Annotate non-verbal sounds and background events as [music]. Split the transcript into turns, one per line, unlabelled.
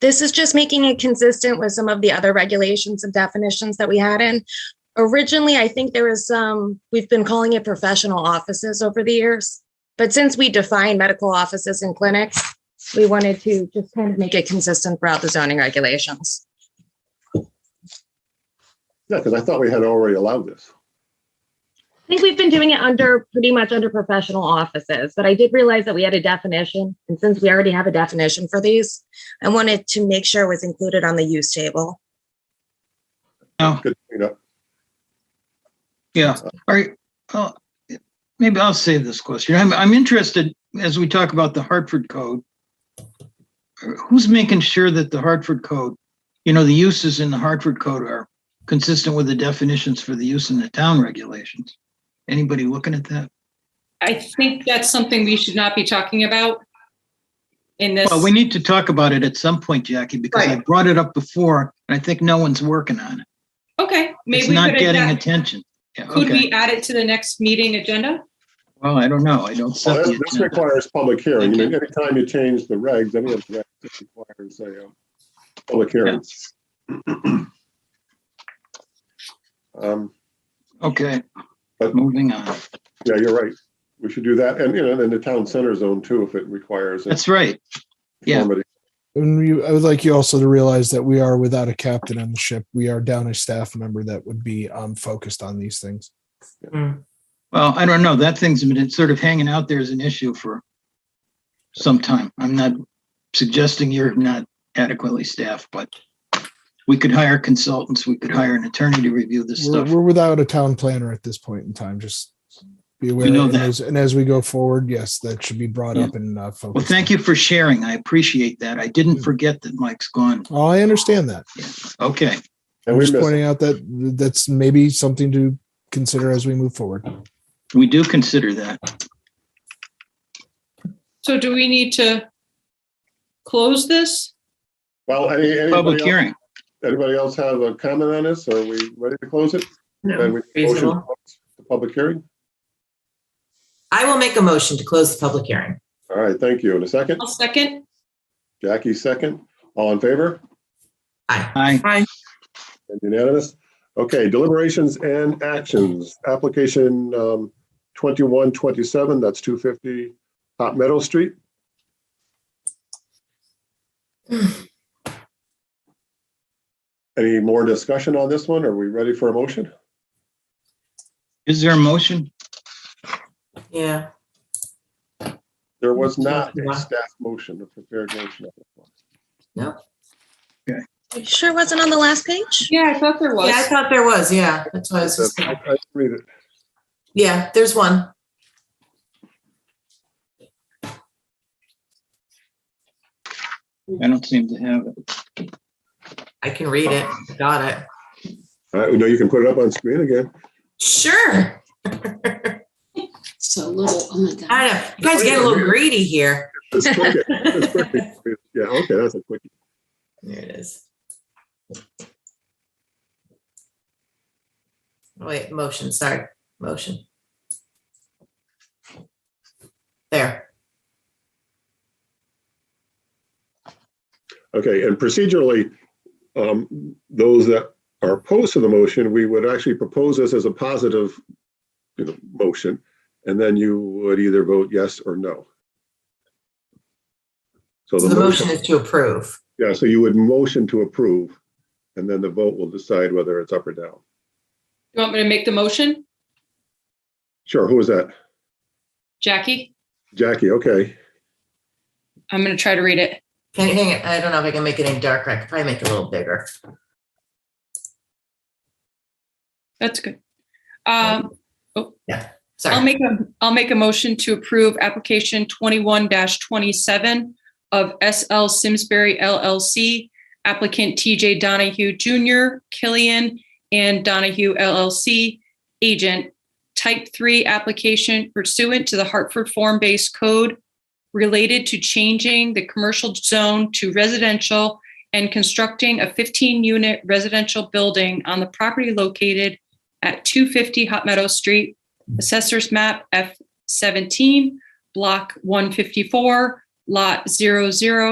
This is just making it consistent with some of the other regulations and definitions that we had in. Originally, I think there was some, we've been calling it professional offices over the years. But since we define medical offices and clinics, we wanted to just kind of make it consistent throughout the zoning regulations.
Yeah, because I thought we had already allowed this.
I think we've been doing it under, pretty much under professional offices, but I did realize that we had a definition. And since we already have a definition for these, I wanted to make sure it was included on the use table.
No,
Good clean up.
yeah, all right. uh, Maybe I'll save this question. I'm, I'm interested, as we talk about the Hartford Code, who's making sure that the Hartford Code, you know, the uses in the Hartford Code are consistent with the definitions for the use in the town regulations? Anybody looking at that?
I think that's something we should not be talking about in this.
Well, we need to talk about it at some point, Jackie, because I brought it up before, and I think no one's working on it.
Okay, maybe
It's
we
not
could,
getting
add-
attention. Yeah,
could
okay.
we add it to the next meeting agenda?
Well, I don't know. I don't
Well,
set the
that- This
agenda.
requires public hearing. I mean,
Okay.
anytime you change the regs, any of the regs it requires a uh, public hearing. [clears throat] Um,
Okay,
But-
moving on.
Yeah, you're right. We should do that. And, you know, and the town center zone too, if it requires.
That's right. yeah.
conformity.
And we, I would like you also to realize that we are without a captain on the ship. We are down a staff member that would be um, focused on these things.
Well, I don't know. That thing's been sort of hanging out there as an issue for some time. I'm not suggesting you're not adequately staffed, but we could hire consultants, we could hire an attorney to review this
We're,
stuff.
we're without a town planner at this point in time. Just be aware.
know
and,
that.
as, and as we go forward, yes, that should be brought
Yeah.
up and uh, focused.
Well, thank you for sharing. I appreciate that. I didn't forget that Mike's gone.
Oh, I understand that.
Okay,
And
I'm
we
just
missed,
pointing out that that's maybe something to consider as we move forward.
we do consider that.
So do we need to close this?
well, any,
Public
anybody else,
hearing.
anybody else have a comment on this? Are we ready to close it? Then we motion to
Reasonable.
close The public hearing?
I will make a motion to close the public hearing.
All right, thank you. In a second,
I'll second.
Jackie second. All in favor?
Aye.
Aye.
And Unanimous? Okay, deliberations and actions. Application um, 2127, that's 250 Hot Meadow Street. Any more discussion on this one? Are we ready for a motion?
Is there a motion?
Yeah.
There was not a staff motion, a prepared motion. on this one.
You sure wasn't on the last page?
Yeah, I thought there
Yeah, I
was.
thought there was. Yeah, that's what I was just
I-
thinking.
I Read it.
Yeah, there's one.
I don't seem to have it.
I can read it. I Got it.
All right, no, you can put it up on screen again.
Sure.
So little, oh my God.
I don't know. You guys get a little greedy here.
It's quick. It's quick.
There
Yeah, okay, that's a quick.
it is. Wait, motion, sorry, motion. There.
Okay, and procedurally, um, those that are opposed to the motion, we would actually propose this as a positive, you know, motion, and then you would either vote yes or no. So
So the motion is to approve.
Yeah, so you would motion to approve, and then the vote will decide whether it's up or down.
You want me to make the motion?
Sure, who was that?
Jackie,
Jackie, okay.
I'm going to try to read it.
Can you hang it? I don't know if I can make it any darker. I could probably make it a little bigger.
That's good. Um,
Sorry.
I'll make a, I'll make a motion to approve application twenty-one twenty-seven of SL Simsbury LLC, applicant TJ Donahue Jr., Killian and Donahue LLC, agent, type three application pursuant to the Hartford Form-Based Code related to changing the commercial zone to residential and constructing a fifteen-unit residential building on the property located at two fifty Hot Meadow Street, Assessor's map F seventeen, block one fifty-four, lot 00.